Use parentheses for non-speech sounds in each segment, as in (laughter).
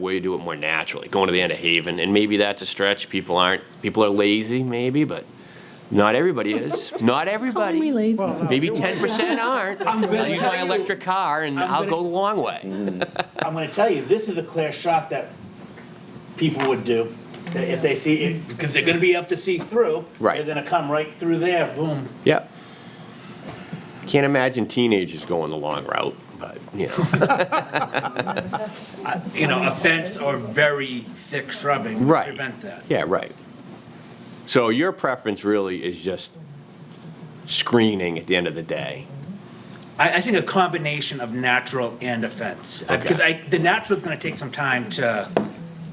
way to do it more naturally, going to the end of Haven, and maybe that's a stretch. People aren't, people are lazy, maybe, but not everybody is. (laughs) Not everybody. Calling me lazy. Maybe ten percent aren't. I'm gonna I'll use my tell you- electric car, and I'm I'll gonna- go the long way. I'm gonna tell you, this is a clear shot that people would do. That If they see it, because they're gonna be up to see through. Right. They're gonna come right through there, boom. Yep. Can't imagine teenagers going the long route, but you (laughs) know. You know, a fence or very thick shrubbing would Right. prevent that. yeah, right. So your preference really is just screening at the end of the day. I, I think a combination of natural and a fence. Okay. Because I, the natural's gonna take some time to,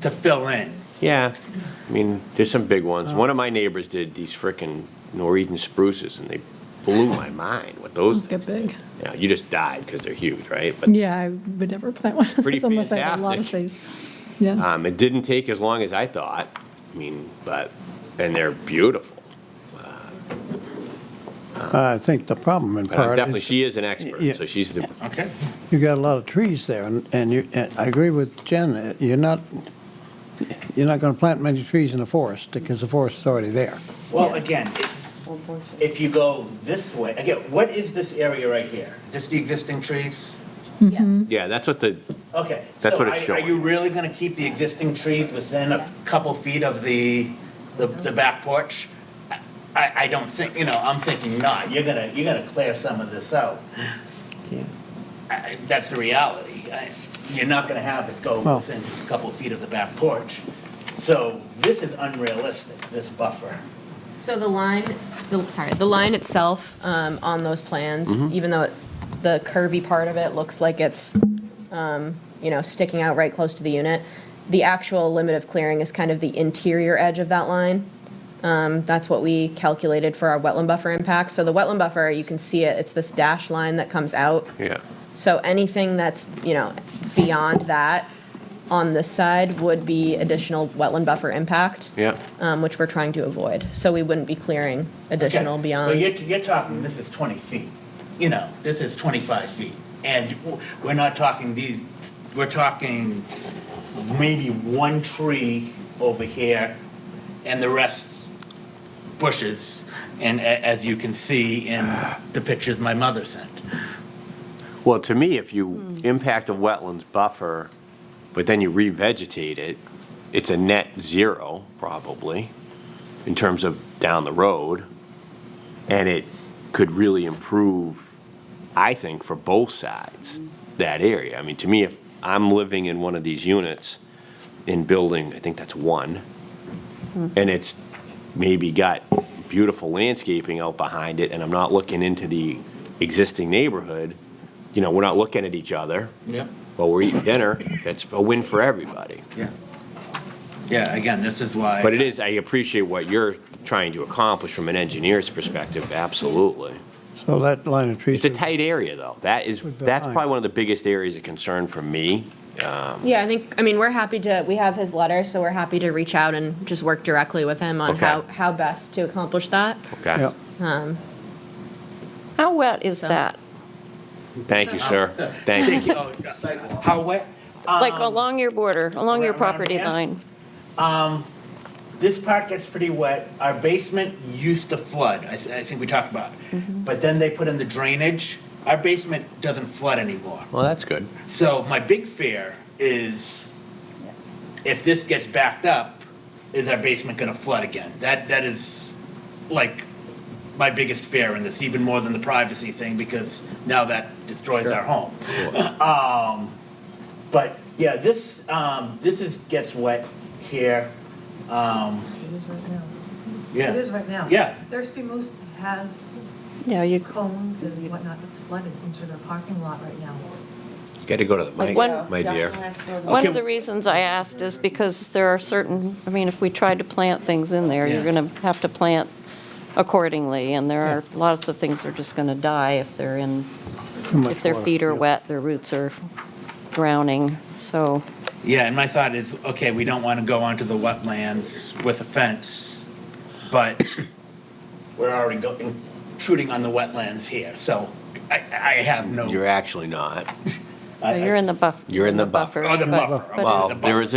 to fill in. Yeah, I mean, there's some big ones. One of my neighbors did these frickin' Norwegian spruces, and they blew my mind with those. Those get big. Yeah, you just died because they're huge, right? But Yeah, I would never plant one of Pretty those unless I had a lot of fantastic. space. Yeah. um, it didn't take as long as I thought. I mean, but and they're beautiful. I think the problem in But I'm part definitely, is, she is an expert, Yeah. so she's the Okay. you got a lot of trees there, and, and you, and I agree with Jen, uh, you're not, you're not gonna plant many trees in the forest, because the forest is already there. Well, again, if you go this way, again, what is this area right here? Is this the existing trees? Yes. yeah. That's what the Okay. That's so what it's are- Are showing. you really going to keep the existing trees within a couple feet of the, the, the back porch? I- I, I don't think, you know, I'm thinking not. You're gonna, you're gonna clear some of this out. I- That's the reality. I- You're not gonna have it go Well- within a couple feet of the back porch. So this is unrealistic, this buffer. So the line, the, sorry, the line itself um, on those plans, even though it- the curvy part of it looks like it's, um, you know, sticking out right close to the unit, the actual limit of clearing is kind of the interior edge of that line. Um, That's what we calculated for our wetland buffer impact. So the wetland buffer, you can see it, it's this dash line that comes out. yeah. So anything that's, you know, beyond that on this side would be additional wetland buffer impact. Yeah. um, which we're trying to avoid. So we wouldn't be clearing additional Okay. beyond. Well, you're, you're talking, this is 20 feet, you know, this is 25 feet. And w- we're not talking these, we're talking maybe one tree over here and the rest bushes. And a- as you can see in the pictures my mother sent. Well, to me, if you impact a wetlands buffer, but then you revegetate it, it's a net zero probably in terms of down the road, and it could really improve, I think, for both sides that area. I mean, to me, if I'm living in one of these units in building, I think that's one, and it's maybe got beautiful landscaping out behind it, and I'm not looking into the existing neighborhood, you know, we're not looking at each other Yep. while we're eating dinner, that's a win for everybody. Yeah. Yeah, again, this is why. But it is, I appreciate what you're trying to accomplish from an engineer's perspective, absolutely. So that line of trees. It's a tight area, though. That is, With the that's line. probably one of the biggest areas of concern for me. Yeah, I think, I mean, we're happy to, we have his letter, so we're happy to reach out and just work directly with him on Okay. how, how best to accomplish that. Okay? Yeah. How wet is So- that? Thank you, sir. Thank you. Oh, How wet? Like along your border, along your around- around property here? line? this part gets pretty wet. Our basement used to flood. I, th- I think we talked about it. But then they put in the drainage. Our basement doesn't flood anymore. Well, that's good. So my big fear is if this gets backed up, is our basement going to flood again? That that is like my biggest fear in this, even more than the privacy thing, because now that destroys our home. But yeah, this, um, this is, gets wet here. Um, It is yeah, right now. Yeah. Thirsty Moose has Yeah, you, cones and whatnot that's flooded into their parking lot right now. You got to go to the mic, one- my dear. one Okay. of the reasons I asked is because there are certain, I mean, if we tried to plant things in there, you're Yeah. going to have to plant accordingly, and there are lots of things that are just going to die if they're in, Too much if their water. feet are Yeah. wet, their roots are drowning, so. yeah, and my thought is, okay, we don't want to go onto the wetlands with a fence, but we're already go- intruding on the wetlands here, so I, I have no, You're actually not. I- You're in the buff. You're in the buffer. Oh, the but- buffer, but okay. Well, it's- there is